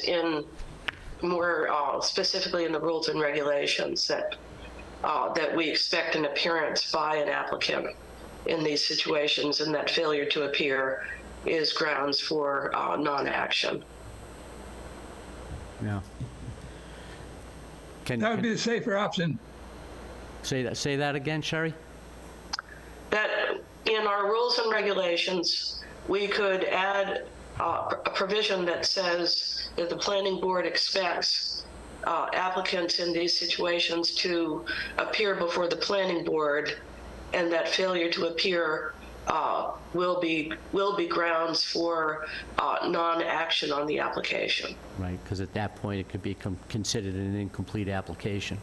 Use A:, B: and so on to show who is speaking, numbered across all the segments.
A: in more uh, specifically in the rules and regulations that uh, that we expect an appearance by an applicant in these situations, and that failure to appear is grounds for uh, non-action.
B: Yeah. Can,
C: That would
B: can-
C: be the safer option.
B: say that, say that again, Sherry?
A: that in our rules and regulations, we could add uh, a provision that says that the planning board expects uh, applicants in these situations to appear before the planning board, and that failure to appear uh, will be, will be grounds for uh, non-action on the application.
B: Right, because at that point, it could be com- considered an incomplete application,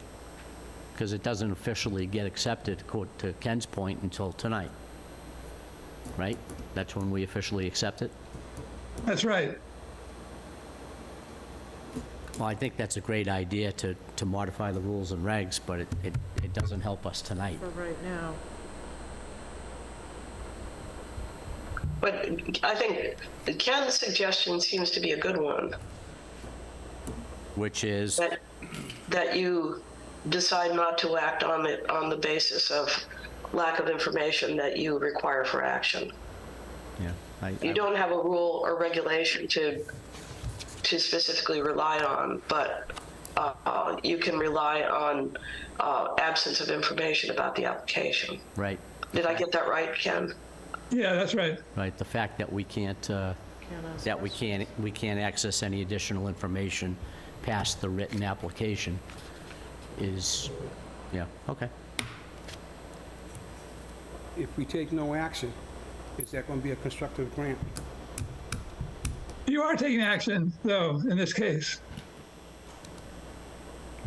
B: because it doesn't officially get accepted, co- to Ken's point, until tonight. Right? That's when we officially accept it?
C: That's right.
B: Well, I think that's a great idea to, to modify the rules and regs, but it, it it doesn't help us tonight.
D: for right now.
A: But I think Ken's suggestion seems to be a good one.
B: Which is,
A: that, that you decide not to act on it on the basis of lack of information that you require for action.
B: yeah. I- I-
A: You don't have a rule or regulation to, to specifically rely on, but uh, uh, you can rely on uh, absence of information about the application.
B: Right,
A: Did I get that right, Ken?
C: Yeah, that's right.
B: right, the fact that we can't, uh,
D: Can't ask
B: that we can't, we can't access any additional information past the written application is, yeah, okay.
E: If we take no action, is that going to be a constructive grant?
C: You are taking action, though, in this case.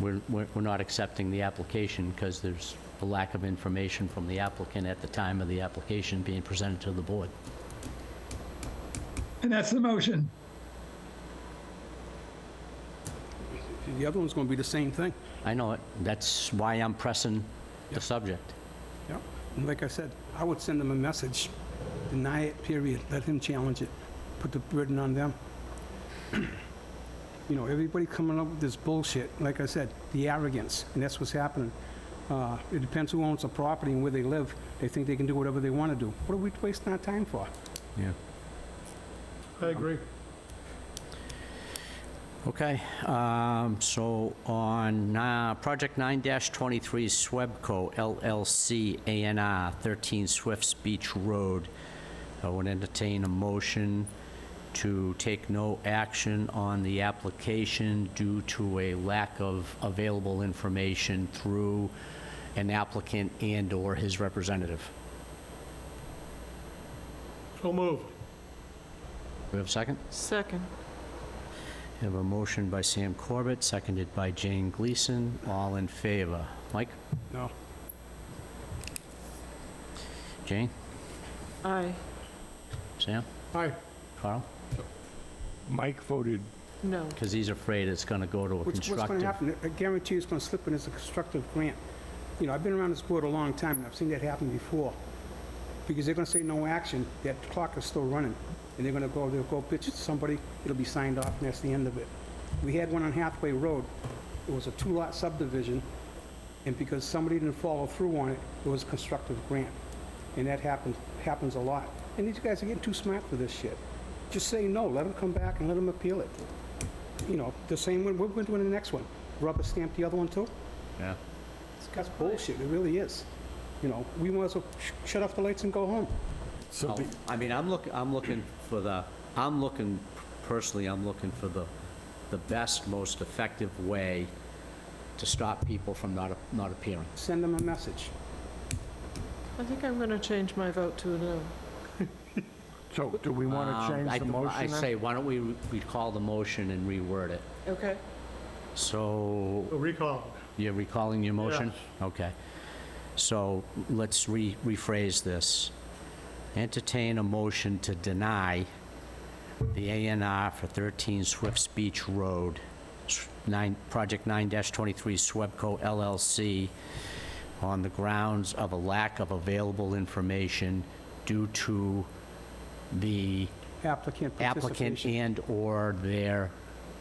B: We're, we're we're not accepting the application because there's a lack of information from the applicant at the time of the application being presented to the board.
C: And that's the motion.
E: The other one's going to be the same thing.
B: I know it, that's why I'm pressing the subject.
E: Yep. And like I said, I would send them a message, deny it, period, let him challenge it, put the burden on them. You know, everybody coming up with this bullshit, like I said, the arrogance, and that's what's happening. Uh, It depends who owns the property and where they live, they think they can do whatever they want to do. What are we wasting our time for?
B: Yeah.
F: I agree.
B: Okay, um, so on uh, Project 9-23 Swebco LLC, ANR 13 Swifts Beach Road, I would entertain a motion to take no action on the application due to a lack of available information through an applicant and/or his representative.
F: So moved.
B: Do we have a second?
D: Second.
B: We have a motion by Sam Corbett, seconded by Jane Gleason. All in favor? Mike?
E: No.
B: Jane?
D: Aye.
B: Sam?
F: Aye.
B: Carl?
F: Mike voted.
D: No.
B: Because he's afraid it's going to go to a
E: What's, what's going to
B: constructive.
E: happen, I guarantee it's going to slip in as a constructive grant. You know, I've been around this board a long time, and I've seen that happen before. Because they're going to say no action, that clock is still running, and they're going to go, they'll go pitch it to somebody, it'll be signed off, and that's the end of it. We had one on Hathaway Road, it was a two-lot subdivision, and because somebody didn't follow through on it, it was a constructive grant. And that happens, happens a lot. And these guys are getting too smart for this shit. Just say no, let them come back and let them appeal it you know, the same one, we're doing the next one. Rubber stamp the other one too?
B: Yeah.
E: That's bullshit, it really is. You know, we might as well sh- shut off the lights and go home.
F: So the-
B: I mean, I'm looking, I'm looking for the, I'm looking, personally, I'm looking for the, the best, most effective way to stop people from not, not appearing.
E: Send them a message.
D: I think I'm going to change my vote to a no.
F: so do we want
B: Um,
F: to
B: I-
F: change the
B: I
F: motion then?
B: say, why don't we recall the motion and reword it?
D: Okay.
B: So
F: Recall.
B: You're recalling your motion? Okay. So let's re- rephrase this. Entertain a motion to deny the ANR for 13 Swifts Beach Road, s- nine, Project 9-23 Swebco LLC, on the grounds of a lack of available information due to the
E: Applicant
B: applicant
E: participation.
B: and/or their